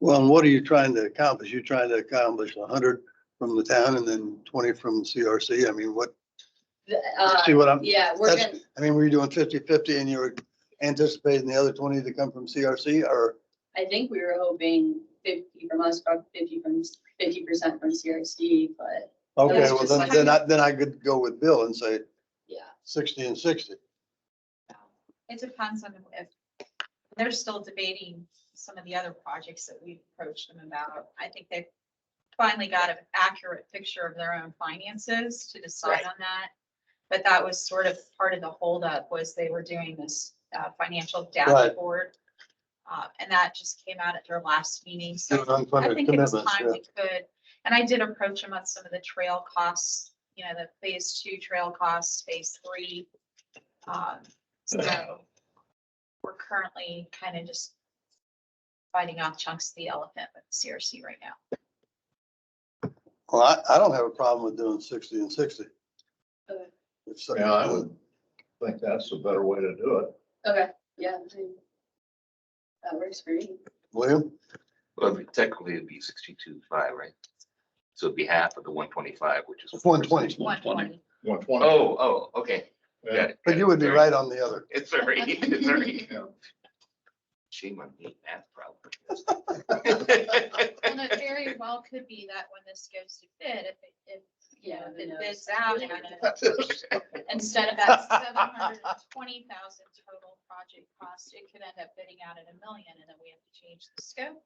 Well, and what are you trying to accomplish? You're trying to accomplish hundred from the town and then twenty from CRC? I mean, what, Uh, see what I'm, Yeah, we're that's- gonna, I mean, were you doing 50-50 and you were anticipating the other twenty to come from CRC or? I think we were hoping fifty from us, probably fifty from, fifty percent from CRC, but Okay, was well, just then, like- then I, then I could go with Bill and say yeah. sixty and sixty. It depends on if, they're still debating some of the other projects that we've approached them about. I think they've finally got an accurate picture of their own finances to decide Right. on that. But that was sort of part of the holdup was they were doing this uh, financial dashboard. uh, And that just came out at their last meeting. So Doing I unfunded think it was commitments, time yeah. we could, and I did approach him on some of the trail costs, you know, the phase two trail costs, phase three. Um, so we're currently kind of just biting off chunks of the elephant with CRC right now. Well, I, I don't have a problem with doing sixty and sixty. Okay. If so- uh, Yeah, I would think that's a better way to do it. Okay, yeah. I mean, That works for me. William? Well, technically it'd be sixty-two five, right? So it'd be half of the one twenty-five, which is. 120. 120. One twenty. Oh, oh, okay. Got it, But got you it. would be Sorry. right on the other. It's all right, it's all right. Yeah. Shame on me, math problem. Well, it very well could be that when this goes to bid, if, it- if, you know, if it bids out, and it- instead of that seven hundred and twenty thousand total project cost, it could end up bidding out at a million, and then we have to change the scope.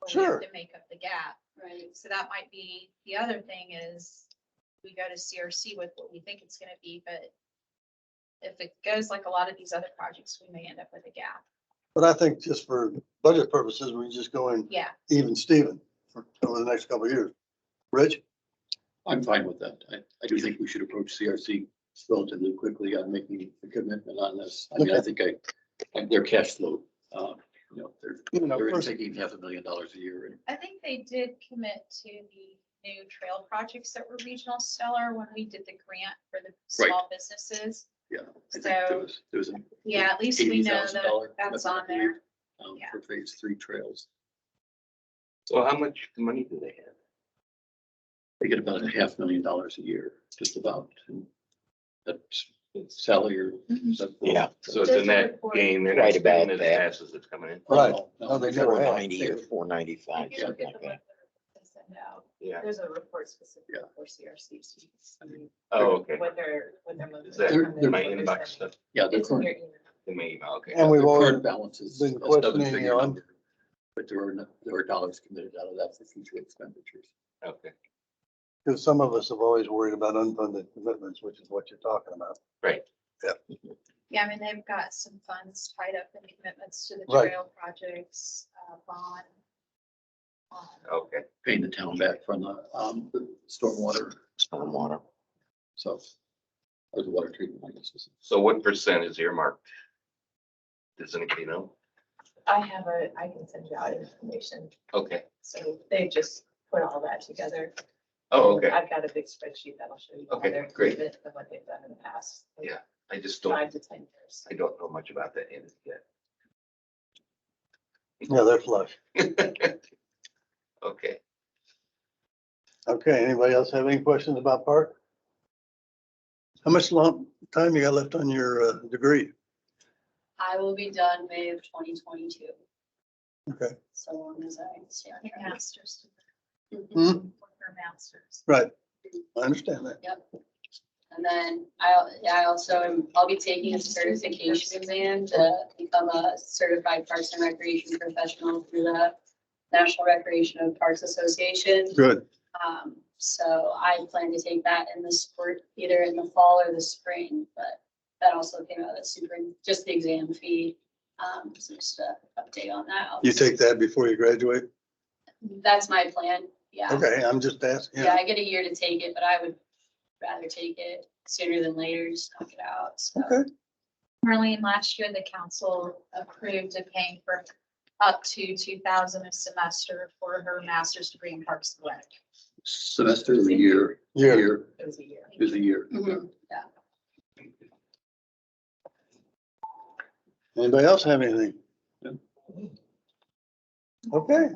or we Sure. have To make up the gap. Right. So that might be, the other thing is, we go to CRC with what we think it's gonna be, but if it goes like a lot of these other projects, we may end up with a gap. But I think just for budget purposes, we just go in Yeah, even Steven for over the next couple of years. Rich? I'm fine with that. I, I do think we should approach CRC relatively quickly on making a commitment on this. I mean, I think I, I- their cash flow, um, you know, they're, You know, they're first- taking half a million dollars a year and I think they did commit to the new trail projects that were regional stellar when we did the grant for the small businesses. I think there So- was, there was an Yeah, at least we eighty know thousand that dollar. that's on there. Um, Yeah. for phase three trails. So how much money do they have? They get about a half million dollars a year, just about. and That's Sally or. Mm. Mhm. Yeah. So it's in that game, they're not Right about spending as that. fast as it's coming in. Right. No, they never Four have. ninety or four ninety-five, If you look something at the like that. one that they sent out, Yeah. There's a report specifically Yeah. for CRC, so you can see Oh, okay. what their, what their. motivations Is that are, in my what they're inbox spending. stuff, Yeah, their It's in current, their email. in my email? Okay. And we've their always current balances. been a seven questioning figure on- number, But there are, no- there are dollars committed out of that for future expenditures. Okay, Because some of us have always worried about unfunded commitments, which is what you're talking about. Yeah, I mean, they've got some funds tied up in commitments to the Right. trail projects, uh, bond. um, okay. Paying the town back from the, um, the stormwater, Stormwater. so, or the water treatment, I guess. is- So what percent is earmarked? Does anybody know? I have a, I can send you out information. Okay, So they just put all that together. oh, okay. I've got a big spreadsheet that'll show you. how Okay, they're great. different Than what they've done in the past. like, Yeah, I just don't, Five to ten years. I don't know much about that end yet. Yeah, they're flush. Okay, Okay, anybody else have any questions about park? How much long time you got left on your uh, degree? I will be done May of twenty twenty-two, Okay, so long as I stay on Your track. master's, Mhm. Hmm, your master's. right. I understand that. And then I, yeah, I also, am- I'll be taking a certification exam to become a certified parks and recreation professional through the National Recreation and Parks Association. Good. Um, so I plan to take that in the sport, either in the fall or the spring, but that also came out of super, just the exam fee. Um, so just a update on that. You take that before you graduate? That's my plan, yeah. Okay, I'm just asking. Yeah, I get a year to take it, but I would rather take it sooner than later, just knock it out, so. Okay. Marlene, last year, the council approved of paying for up to two thousand a semester for her master's degree in Parks and Rec. Semester or year, Yeah. year It was a year. is a year. Mhm. Anybody else have anything? Okay.